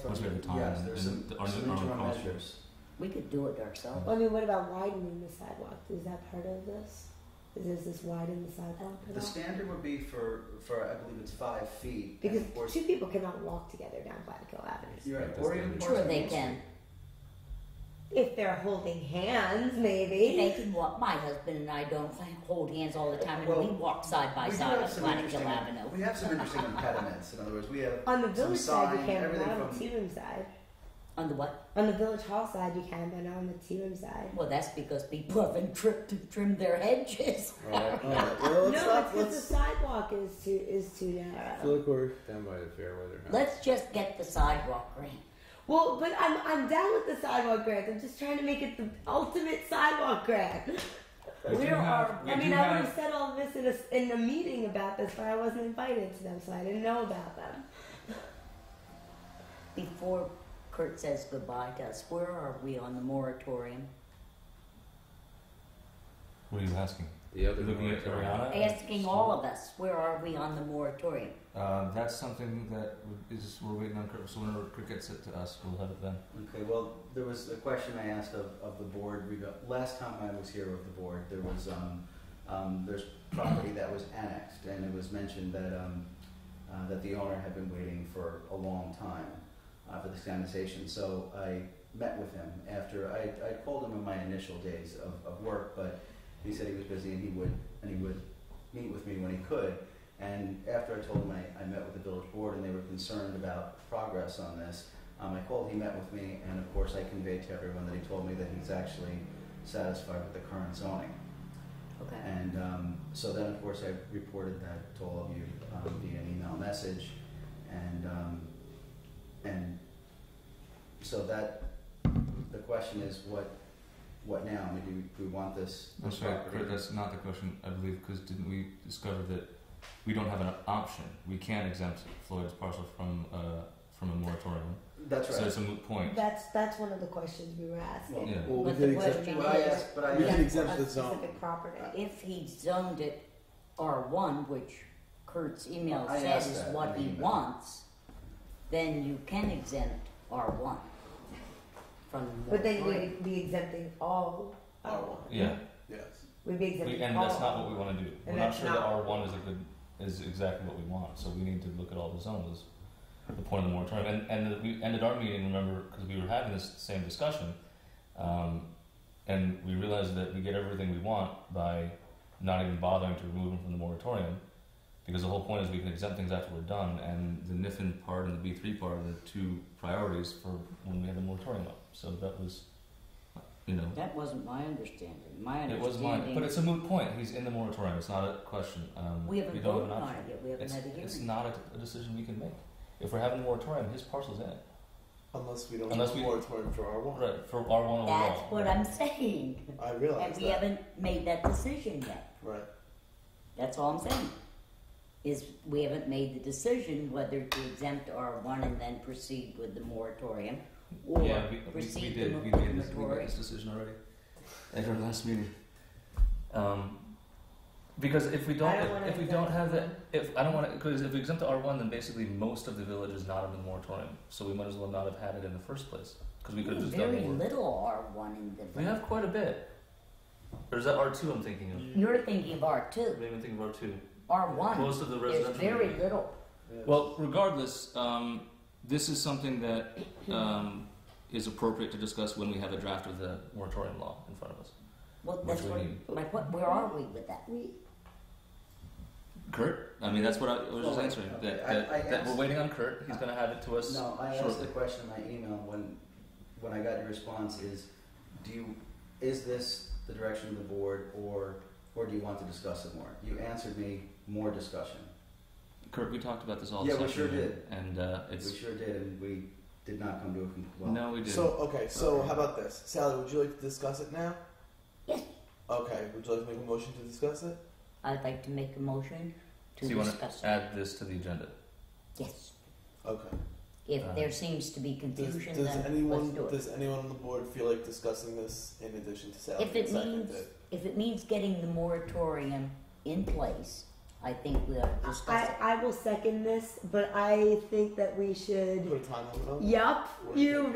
Was there a time Yes, there's some, and are some there- are there interim costs? measures. We could do it ourselves. Well, I mean, what about widening the sidewalk? Is that part of this? Is is this widen the sidewalk at um, The all? standard would be for, for, I believe it's five feet. and Because of course- two people cannot walk together down Black Hill Avenue. You're right, That's or even standard. parts Sure, of they Main can. Street. If they're holding hands, maybe. They can walk. My husband and I don't hold hands all the time, and Well, we walk side by We do side have on some Planet Hill interesting- Avenue. We have some interesting impediments, in other words, we have on the some village side, you sign, can, but everything not on the from- tea room side. On the what? On the village hall side, you can, but not on the tea room side. Well, that's because people haven't tripped and trimmed their hedges. Alright, alright. No, Well, it's let's because not, the let's, sidewalk is too is too narrow. look, we're down by the fair weather. now. Let's just get the sidewalk green. Well, but I'm I'm down with the sidewalk grant. I'm just trying to make it the ultimate sidewalk grant. We do Where have- are? we I mean, do I would have- have said all this in a in a meeting about this, but I wasn't invited to them, so I didn't know about them. Before Kurt says goodbye to us, where are we on the moratorium? What are you asking? The other Looking at moratorium. Uh, Ariana? Asking all of us, where are we on the moratorium? Uh, that's something that would- is we're waiting on Kurt. So whenever Kurt gets it to us, we'll have it then. Okay, well, there was a question I asked of, of the board, rega- last time I was here with the board, there was, um, um, there's property that was annexed, and it was mentioned that, um, uh, that the owner had been waiting for a long time, uh, for this annexation, so I met with him after, I, I called him in my initial days of, of work, but he said he was busy and he would, and he would meet with me when he could, and after I told him, I, I met with the village board, and they were concerned about progress on this, um, I called, he met with me, and of course I conveyed to everyone that he told me that he's actually satisfied with the current zoning. Okay. And um, so then, of course, I reported that to all of you um, via an email message, and um, and so that the question is what what now? I mean, do we want this? I'm this sorry, property? Kurt. That's not the question, I believe, because didn't we discover that we don't have an option? We can't exempt Floyd's parcel from uh, from a moratorium. That's So right. it's a moot point. That's that's one of the questions we were asking. Well, Yeah. Well, we But the did exempt, question but I is, asked, but I we asked, can exempt A the zone. specific property. if he zoned it R1, which Kurt's email I says asked is that what in he the email. wants, then you can exempt R1 from the But then moratorium. we'd be exempting all. all. Yeah, Yes. We'd be exempting we, and all. that's not what we want to do. And We're not that's sure that not- R one is a good is exactly what we want. So we need to look at all the zones. The point of the moratorium, and and we ended our meeting. Remember, because we were having this same discussion, um, and we realized that we get everything we want by not even bothering to remove them from the moratorium. Because the whole point is we can exempt things after we're done, and the NIFIN part and the B three part are the two priorities for when we had the moratorium up. So that was, you know, That wasn't my understanding. My it was mine, but understanding, it's a moot point. He's in the moratorium. It's not a question. Um, we don't haven't have voted an on option. it yet, we haven't It's, had a hearing. it's not a, a decision we can make. If we're having a moratorium, his parcel's in it. Unless we don't Unless have we- a moratorium for our one. Right, for R1 overall. That's what I'm saying, I realize and we that. haven't made that decision yet. Right. That's all I'm saying. Is we haven't made the decision whether to exempt R1 and then proceed with the moratorium, or Yeah, we, we, we proceed did. with We the made, this, we made moratorium. this decision already at our last meeting. Um, because if we don't, I don't wanna if we exempt don't have that, them. if I don't want to, because if we exempt the R1, then basically most of the village is not in the moratorium. So we might as well not have had it in the first place because we could have just done Very more. little R1 in the. We have quite a bit. Or is that R2 I'm thinking of? You're thinking of R2. Maybe I'm thinking of R2. R1 Most of the is residential. very area. little. Yes. Well, regardless, um, this is something that um, is appropriate to discuss when we have a draft of the moratorium law in front of us. Well, Which that's we what, need. like, what, where are we with that? We Kurt, I mean, that's what I, I was just Well, answering. okay, That, Oh, I- that, I that we're asked- waiting on Kurt. He's going to have it to us. No, I asked shortly. the question in my email when, when I got your response is, do you, is this the direction of the board or, or do you want to discuss it more? You answered me, more discussion. Kurt, we talked about this all. Yeah, this we sure afternoon, did. And uh, We it's sure did, and we did not come to a conclusion. Well, no, we did. So okay, so Okay. how about this, Sally? Would you like to discuss it now? Yes. Okay. Would you like to make a motion to discuss it? I'd like to make a motion to So you wanna discuss. it. add this to the agenda. Yes. Okay. If Uh, there seems to be Does, confusion, does then let's anyone do it. does anyone on the board feel like discussing this in addition to Sally? If it Second means- it. If it means getting the moratorium in place I think we'll discuss I, it. I will second this, but I think that we should. Put a time limit on. it. Yup, you